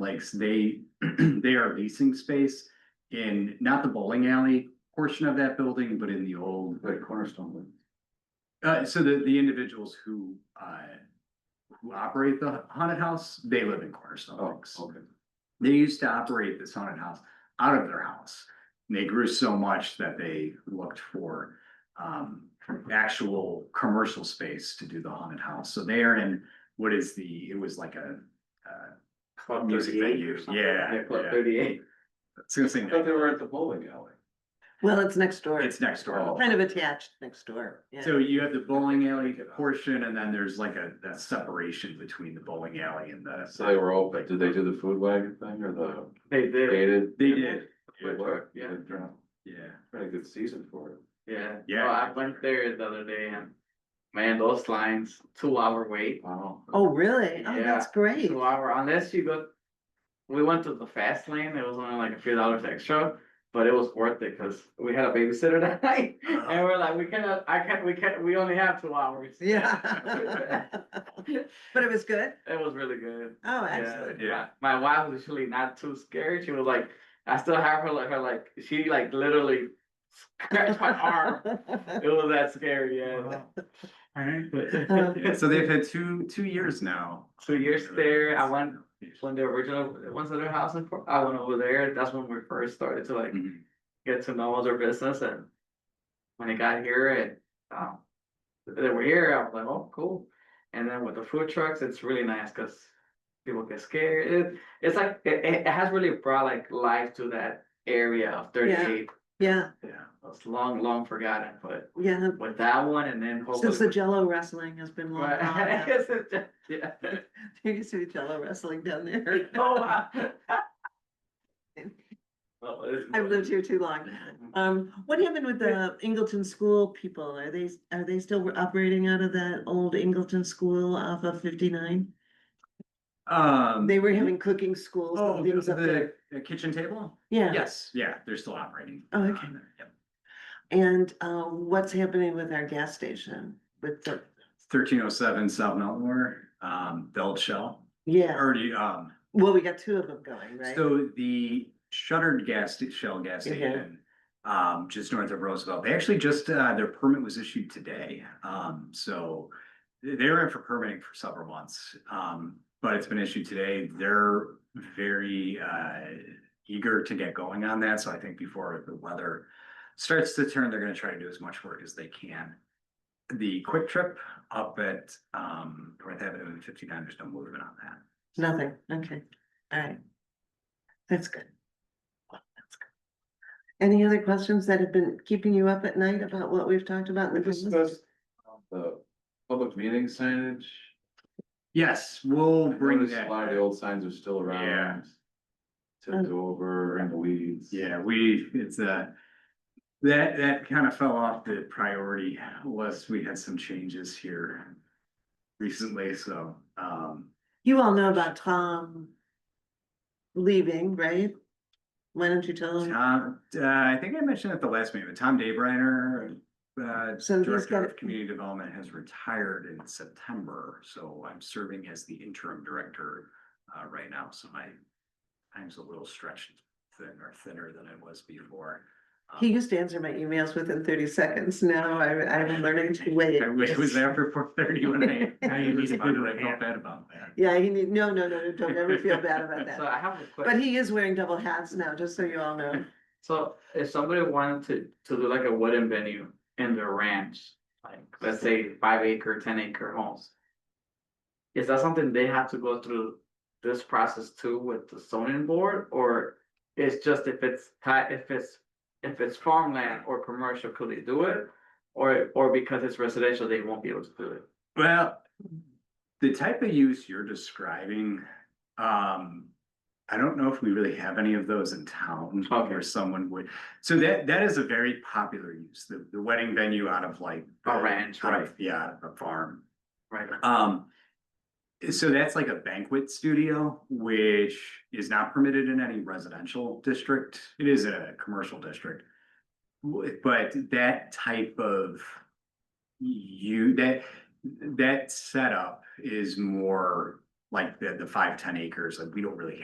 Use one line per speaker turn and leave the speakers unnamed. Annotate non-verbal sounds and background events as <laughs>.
Lakes, they, <clears throat> they are leasing space in, not the bowling alley portion of that building, but in the old.
Like Cornerstone.
Uh, so the, the individuals who, uh, who operate the haunted house, they live in Cornerstone
Oh,
Lakes.
okay.
They used to operate this haunted house out of their house. And they grew so much that they looked for, um, actual commercial space to do the haunted house. So they are in, what is the, it was like a, uh,
Club
music
38 or
venue.
something.
Yeah, yeah.
Club thirty-eight.
it's gonna say,
I thought they were at the bowling alley.
Well, it's next door.
it's next door.
Oh.
Kind of attached next door, yeah.
So you have the bowling alley portion and then there's like a, that separation between the bowling alley and the.
So they were open. Did they do the food wagon thing or the
They did,
dated?
They did,
Good work.
Yeah.
yeah.
Pretty good season for it.
yeah.
Yeah.
Oh, I went there the other day and, man, those lines, two hour wait,
Wow.
Oh, really? Oh,
Yeah.
that's great.
two hour, unless you go. We went to the fast lane, it was only like a few dollars extra, but it was worth it, cause we had a babysitter <laughs> that night.
Uh-huh.
And we're like, we cannot, I can't, we can't, we only have two hours. <laughs>
Yeah. <laughs> But it was good?
It was really good.
Oh,
Yeah,
excellent. <laughs>
Yeah.
my, my wife was actually not too scared. She was like, I still have her like her like she like literally scratched my
<laughs>
arm. It was that scary, yeah. <laughs>
Uh,
Yeah, So <laughs> they've had two, two years now.
Two years there. I went when the original once their house in Fort- I went over there. That's when we first started to like
Mhm.
get to know their business and when I got here and um they were here, I was like, oh, cool. And then with the food trucks, it's really nice because people get scared. It, it's like it, it it has really brought like life to that area of 38.
Yeah,
Yeah.
It's long, long forgotten, but
yeah.
with that one and then hopefully.
Since the Jello wrestling has been
<laughs>
long
Right.
gone.
I
yeah.
guess it just- yeah.
<laughs> There used to be Jello wrestling down there. <laughs>
Oh, wow. <laughs> Well, it's-
I've lived here too long. Um, what happened with the Ingleton School people? Are they, are they still operating out of that old Ingleton School off of fifty-nine?
Um.
They were having cooking schools
Oh,
and
the,
things up there.
the kitchen table?
Yeah.
Yes, yeah, they're still operating. Um,
Oh,
on
okay.
there, yep.
And uh, what's happening with our gas station with the,
Thirteen oh seven South Melmore, um, Belt Shell,
yeah,
already, um,
well, we got two of them going, right?
So the shuttered gas, sta- Shell gas
Mhm.
station, um, just north of Roosevelt, they actually just, uh, their permit was issued today. Um, so they they were in for permitting for several months, um, but it's been issued today. They're very, uh, eager to get going on that. So I think before the weather starts to turn, they're gonna try to do as much work as they can. The quick trip up at, um, North Avenue and fifty-nine, there's no movement on that.
Nothing, okay, all right. That's good. That's good. Any other questions that have been keeping you up at night about what we've talked about in the
We
business?
discussed the public meeting signage.
Yes, we'll
I
bring
noticed
that.
A lot of the old signs are still
Yeah.
around. Tipped over in the weeds.
Yeah, we, it's a, that, that kind of fell off the priority list. We had some changes here recently, so, um,
You all know about Tom leaving, right? Why don't you tell him?
Tom, uh, I think I mentioned at the last meeting, but Tom Daybreiner, uh,
So he's
Director
got-
of Community Development has retired in September, so I'm serving as the interim director, uh, right now, so my time's a little stretched thin or thinner than it was before. Um,
He used to answer my emails within thirty seconds. Now I, I'm learning to wait.
I wish it was after four thirty when
<laughs>
I,
Now
I
you
was
need a
about
good
it, I felt
hand.
bad about that.
Yeah, he need, no, no, no, no, don't ever feel bad
<laughs>
about
<laughs> So
that.
I have a question.
But he is wearing double hats now, just so you all know.
So if somebody wanted to, to do like a wooden venue in their ranch, like, let's say five acre, ten acre homes. Is that something they have to go through this process too with the zoning board, or it's just if it's ti- if it's, if it's farmland or commercial, could they do it? Or, or because it's residential, they won't be able to do it?
Well, the type of use you're describing, um, I don't know if we really have any of those in town where
Okay.
someone would. So that, that is a very popular use, the, the wedding venue out of like.
A
the-
ranch,
out of-
right.
Yeah, out of a farm.
Right.
Um, so that's like a banquet studio, which is not permitted in any residential district. It is a commercial district. W- But that type of you, that, that setup is more like the, the five, ten acres, like we don't really